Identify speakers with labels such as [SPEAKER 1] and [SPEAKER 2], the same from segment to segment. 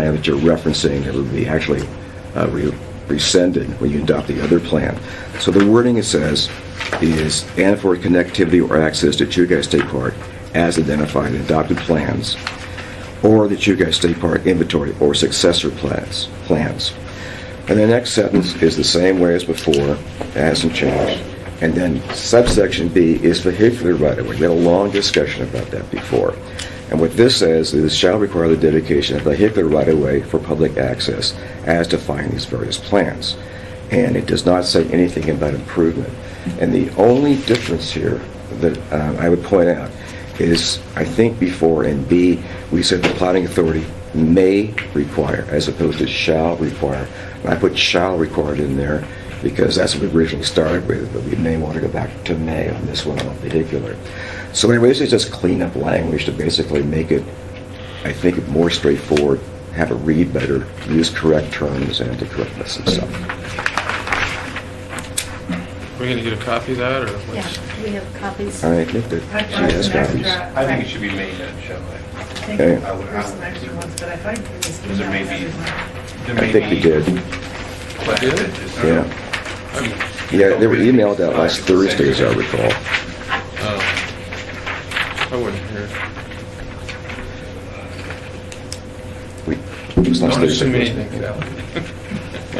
[SPEAKER 1] plan that you're referencing it would be actually uh, re- rescinded when you adopt the other plan. So the wording it says is, "And for connectivity or access to Chugai State Park as identified in adopted plans, or the Chugai State Park inventory or successor plans." plans. And the next sentence is the same way as before, it hasn't changed. And then subsection B is vehicular right-of-way. We had a long discussion about that before. And what this says is shall require the dedication of vehicular right-of-way for public access as defined in these various plans. And it does not say anything about improvement. And the only difference here that um, I would point out is, I think before in B, we said the plotting authority may require, as opposed to shall require. And I put shall required in there because that's what we originally started with, but we may want to go back to may on this one in particular. So anyway, this is just cleanup language to basically make it, I think, more straightforward, have it read better, use correct terms and the correctness and stuff.
[SPEAKER 2] We're gonna get a copy of that, or what's?
[SPEAKER 3] Yeah, we have copies.
[SPEAKER 1] I think that she has copies.
[SPEAKER 4] I think it should be made then, shall I?
[SPEAKER 5] I think
[SPEAKER 1] Okay.
[SPEAKER 5] there were some extra ones, but I thought it was
[SPEAKER 4] Because there may
[SPEAKER 5] emailed
[SPEAKER 4] be-
[SPEAKER 5] everyone.
[SPEAKER 4] There
[SPEAKER 1] I
[SPEAKER 4] may
[SPEAKER 1] think we
[SPEAKER 4] be
[SPEAKER 1] did,
[SPEAKER 4] questions that just aren't-
[SPEAKER 1] yeah. Yeah, they were emailed out last Thursday, as I recall.
[SPEAKER 2] Oh, I wasn't here.
[SPEAKER 1] We, it was last
[SPEAKER 4] Don't assume
[SPEAKER 1] Thursday.
[SPEAKER 4] anything,
[SPEAKER 1] wasn't it?
[SPEAKER 4] Sally.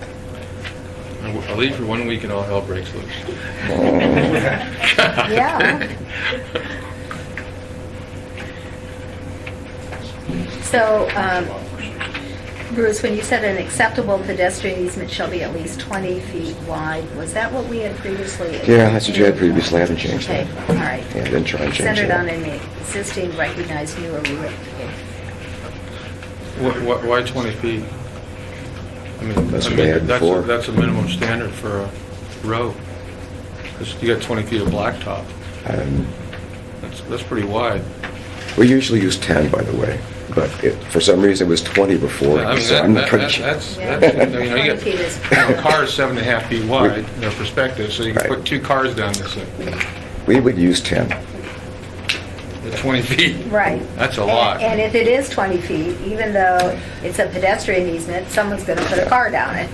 [SPEAKER 2] I w- I'll leave for one week and all hell breaks loose.
[SPEAKER 3] Yeah. So, um, Bruce, when you said an acceptable pedestrian easement shall be at least 20 feet wide, was that what we had previously?
[SPEAKER 1] Yeah, that's what you had previously. I haven't changed that.
[SPEAKER 3] Okay, all right.
[SPEAKER 1] Yeah, didn't try and change
[SPEAKER 3] Centered
[SPEAKER 1] that.
[SPEAKER 3] on an existing recognized new or relocated.
[SPEAKER 2] Wh- wh- Why 20 feet? I mean,
[SPEAKER 1] That's what
[SPEAKER 2] I mean,
[SPEAKER 1] they had
[SPEAKER 2] that's a-
[SPEAKER 1] before.
[SPEAKER 2] That's a minimum standard for a road. 'Cause You got 20 feet of blacktop.
[SPEAKER 1] Um,
[SPEAKER 2] That's, that's pretty wide.
[SPEAKER 1] We usually use 10, by the way, but it, for some reason it was 20 before,
[SPEAKER 2] I mean,
[SPEAKER 1] so
[SPEAKER 2] that-
[SPEAKER 1] I'm
[SPEAKER 2] that-
[SPEAKER 1] not pretty
[SPEAKER 2] that-
[SPEAKER 1] sure.
[SPEAKER 2] That's,
[SPEAKER 3] Yeah.
[SPEAKER 2] that's, I mean, you
[SPEAKER 3] 20 feet is-
[SPEAKER 2] got, you know, a car is seven and a half feet wide, in their perspective, so you can
[SPEAKER 1] Right.
[SPEAKER 2] put two cars down this thing,
[SPEAKER 1] We would use 10.
[SPEAKER 2] at 20 feet.
[SPEAKER 3] Right.
[SPEAKER 2] That's a
[SPEAKER 3] And-
[SPEAKER 2] lot.
[SPEAKER 3] And if it is 20 feet, even though it's a pedestrian easement, someone's going to put a car down it.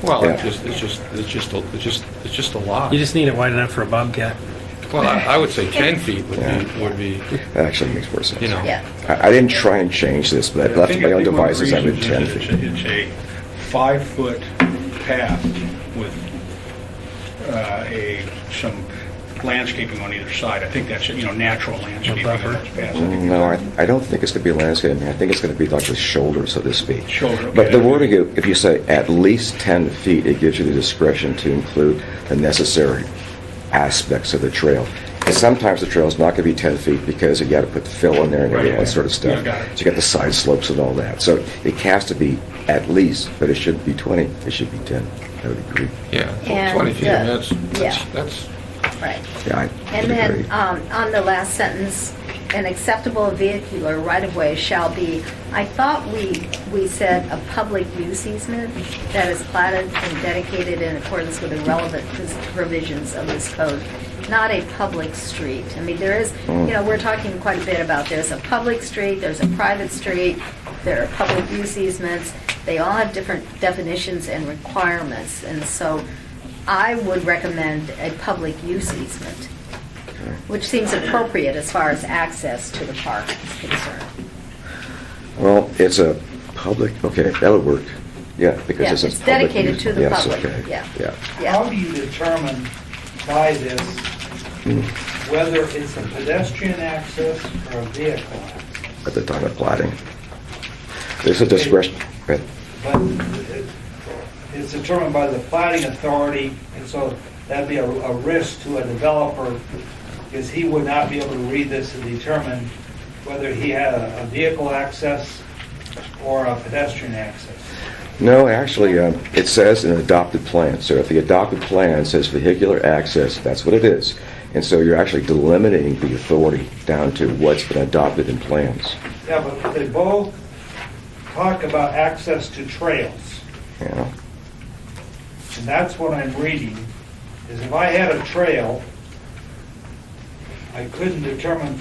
[SPEAKER 2] Well, it's
[SPEAKER 1] Yeah.
[SPEAKER 2] just, it's just, it's just, a- it's just, it's just a lot.
[SPEAKER 6] You just need it wide enough for a bobcat.
[SPEAKER 2] Well, I I would say 10 feet would be, would be,
[SPEAKER 1] That actually makes more sense.
[SPEAKER 2] You know.
[SPEAKER 3] Yeah.
[SPEAKER 1] I, I didn't try and change this, but I
[SPEAKER 7] I
[SPEAKER 1] left
[SPEAKER 7] think
[SPEAKER 1] my own
[SPEAKER 7] if people
[SPEAKER 1] devices, I
[SPEAKER 7] agree
[SPEAKER 1] would
[SPEAKER 7] that
[SPEAKER 1] 10
[SPEAKER 7] it's-
[SPEAKER 1] feet.
[SPEAKER 7] It's a five-foot path with uh, a, some landscaping on either side. I think that's, you know, natural landscaping on
[SPEAKER 6] buffer.
[SPEAKER 7] those paths. I think
[SPEAKER 1] No, I, I don't think it's going to be landscaping, I think it's going to be like the shoulder, so to speak.
[SPEAKER 7] Shoulder,
[SPEAKER 1] But the
[SPEAKER 7] okay.
[SPEAKER 1] wording, of- if you say at least 10 feet, it gives you the discretion to include the necessary aspects of the trail. And sometimes the trail's not going to be 10 feet because you got to put the fill in there and all
[SPEAKER 7] Right.
[SPEAKER 1] that sort of stuff.
[SPEAKER 7] Yeah, got it.
[SPEAKER 1] So you got the side slopes and all that. So it has to be at least, but it shouldn't be 20, it should be 10. I would agree.
[SPEAKER 2] yeah,
[SPEAKER 3] And,
[SPEAKER 2] 20 feet,
[SPEAKER 3] uh,
[SPEAKER 2] that's, that's,
[SPEAKER 3] yeah.
[SPEAKER 2] that's,
[SPEAKER 3] Right.
[SPEAKER 1] Yeah, I
[SPEAKER 3] And
[SPEAKER 1] would agree.
[SPEAKER 3] then, um, on the last sentence, an acceptable vehicular right-of-way shall be, I thought we, we said a public use easement that is platted and dedicated in accordance with the relevant pres- provisions of this code, not a public street. I mean, there is, you know, we're talking quite a bit about there's a public street, there's a private street, there are public use easements. They all have different definitions and requirements, and so I would recommend a public use easement. Which seems appropriate as far as access to the park is concerned.
[SPEAKER 1] Well, it's a public, okay, that would work. Yeah, because
[SPEAKER 3] Yeah,
[SPEAKER 1] it's a
[SPEAKER 3] it's
[SPEAKER 1] public.
[SPEAKER 3] dedicated
[SPEAKER 1] use-
[SPEAKER 3] to the
[SPEAKER 1] yeah, it's
[SPEAKER 3] public,
[SPEAKER 1] okay.
[SPEAKER 3] yeah.
[SPEAKER 1] Yeah.
[SPEAKER 3] Yeah.
[SPEAKER 8] How do you determine by this whether it's a pedestrian access or a vehicle access?
[SPEAKER 1] at the time of plotting. There's a discretion, but
[SPEAKER 8] But it- it's determined by the planning authority, and so that'd be a, a risk to a developer, because he would not be able to read this and determine whether he had a a vehicle access or a pedestrian access.
[SPEAKER 1] no, actually, um, it says an adopted plan. So if the adopted plan says vehicular access, that's what it is. And so you're actually delimiting the authority down to what's been adopted in plans.
[SPEAKER 8] Yeah, but they both talk about access to trails.
[SPEAKER 1] You know?
[SPEAKER 8] and that's what I'm reading, is if I had a trail, I couldn't determine